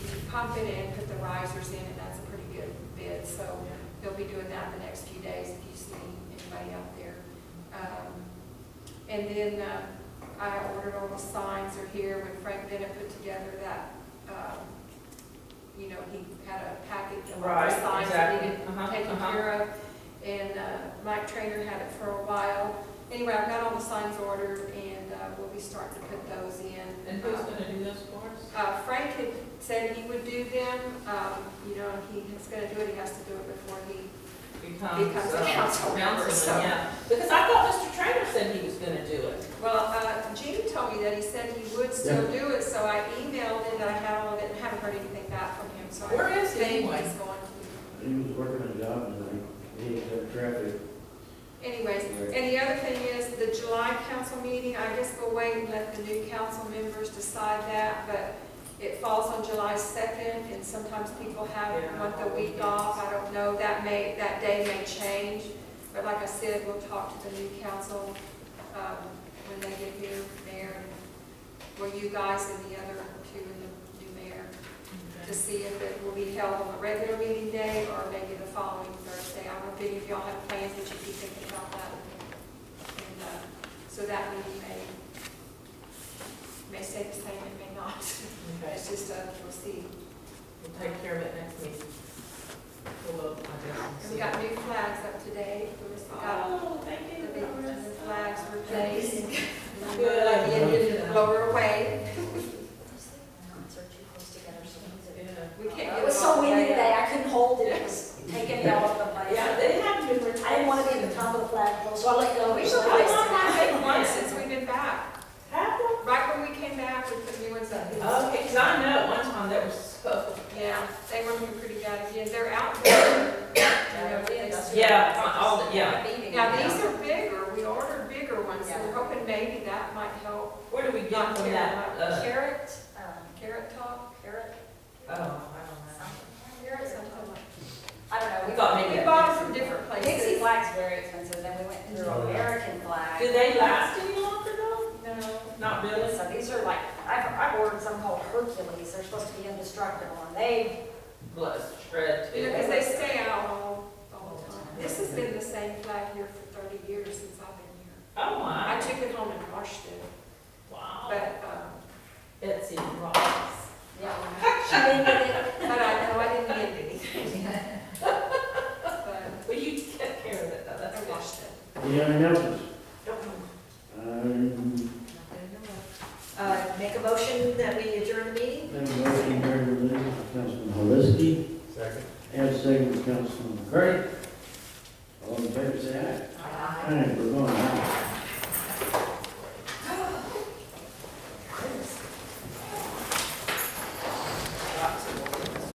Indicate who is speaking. Speaker 1: pump it in, put the risers in, and that's a pretty good bid. So they'll be doing that in the next few days if you see anybody out there. Um, And then uh, I ordered all the signs are here when Frank Bennett put together that, um, you know, he had a packet of all the
Speaker 2: Right,
Speaker 1: signs that
Speaker 2: exactly.
Speaker 1: needed
Speaker 2: Uh-huh,
Speaker 1: taken
Speaker 2: uh-huh.
Speaker 1: care of. And uh, Mike Trainer had it for a while. Anyway, I've got all the signs ordered and uh, we'll be starting to put those in.
Speaker 2: And who's gonna do this for us?
Speaker 1: Uh, Frank had said he would do them, um, you know, he is gonna do it, he has to do it before he,
Speaker 2: Becomes
Speaker 1: Becomes
Speaker 2: uh,
Speaker 1: a council member,
Speaker 2: councilman,
Speaker 1: so-
Speaker 2: yeah. Because I thought Mr. Trainer said he was gonna do it.
Speaker 1: well, uh, Gene told me that he said he would still do it, so I emailed it, I had all of it, and haven't heard anything back from him, so I.
Speaker 2: Where is he
Speaker 1: think
Speaker 2: anyway?
Speaker 1: he's going to.
Speaker 3: He was working a job and he, he had traffic.
Speaker 1: Anyways, and the other thing is, the July council meeting, I guess we'll wait and let the new council members decide that, but it falls on July second, and sometimes people have,
Speaker 2: Yeah.
Speaker 1: want the week off, I don't know, that may, that day may change, but like I said, we'll talk to the new council, um, when they get here, mayor, and, well, you guys and the other two and the new mayor, to see if it will be held on a regular meeting day or maybe the following Thursday. I don't know if any of y'all have plans that you'd be thinking about that. And, uh, so that meeting may, may stay the same, it may not.
Speaker 2: Okay,
Speaker 1: It's just, uh, we'll see.
Speaker 2: we'll take care of it next meeting. We'll, look, I guess, and
Speaker 1: And
Speaker 2: see.
Speaker 1: we got new flags up today. We just got
Speaker 2: Oh, thank
Speaker 1: the
Speaker 2: you.
Speaker 1: big
Speaker 2: Doris.
Speaker 1: flags replaced.
Speaker 2: Good.
Speaker 1: And Lower away.
Speaker 4: Concert you close together, so
Speaker 2: Yeah.
Speaker 1: We can't get.
Speaker 4: It was so windy today, I couldn't hold it, it was taking me all over the place.
Speaker 2: Yeah,
Speaker 4: I
Speaker 2: they have to be. retired.
Speaker 4: didn't want to be at the top of the flagpole, so I let go.
Speaker 1: We should probably not have big ones since we've been back.
Speaker 2: Have them?
Speaker 1: Right when we came back, we put new ones up.
Speaker 2: Okay, 'cause I know at one time there was so.
Speaker 1: Yeah, they were doing pretty good again, they're out there.
Speaker 2: Yeah, uh, all, yeah.
Speaker 1: Now, these are bigger, we ordered bigger ones, so we're hoping maybe that might help.
Speaker 2: Where do we
Speaker 1: Not
Speaker 2: get from that?
Speaker 1: terrible.
Speaker 2: uh,
Speaker 4: Carrot, um,
Speaker 1: Carrot top,
Speaker 4: carrot,
Speaker 2: Oh, I don't know.
Speaker 4: carrot,
Speaker 1: carrots,
Speaker 4: something.
Speaker 1: something like.
Speaker 4: I don't know.
Speaker 2: We thought
Speaker 1: We
Speaker 2: maybe-
Speaker 1: bought them from different
Speaker 4: Dixie
Speaker 1: places.
Speaker 4: flag's very expensive, then we went through
Speaker 2: Oh,
Speaker 4: American flag.
Speaker 2: Do they last any longer though?
Speaker 4: No.
Speaker 2: Not really?
Speaker 4: So these are like, I've, I've ordered some called Hercules, they're supposed to be indestructible, and they,
Speaker 2: Blood, shred,
Speaker 1: You know,
Speaker 2: too.
Speaker 1: because they stay out all, all the time. This has been the same flag here for thirty years since I've been here.
Speaker 2: Oh,
Speaker 1: I
Speaker 2: my.
Speaker 1: took it home and washed it,
Speaker 2: Wow.
Speaker 1: but, um,
Speaker 2: Betsy Ross.
Speaker 4: yeah.
Speaker 1: but
Speaker 4: She didn't get it.
Speaker 1: I know I didn't get anything. But
Speaker 2: Well, you take care of it though, that's
Speaker 1: I
Speaker 2: good.
Speaker 1: washed it.
Speaker 3: Any other announcements?
Speaker 2: Don't move.
Speaker 3: Um,
Speaker 4: Uh, make a motion that we adjourn the meeting?
Speaker 3: have a motion here to release from Councilman Holinsky. Second. And a second from Councilman McCray. All in favor, say aye. Aye, we're going out.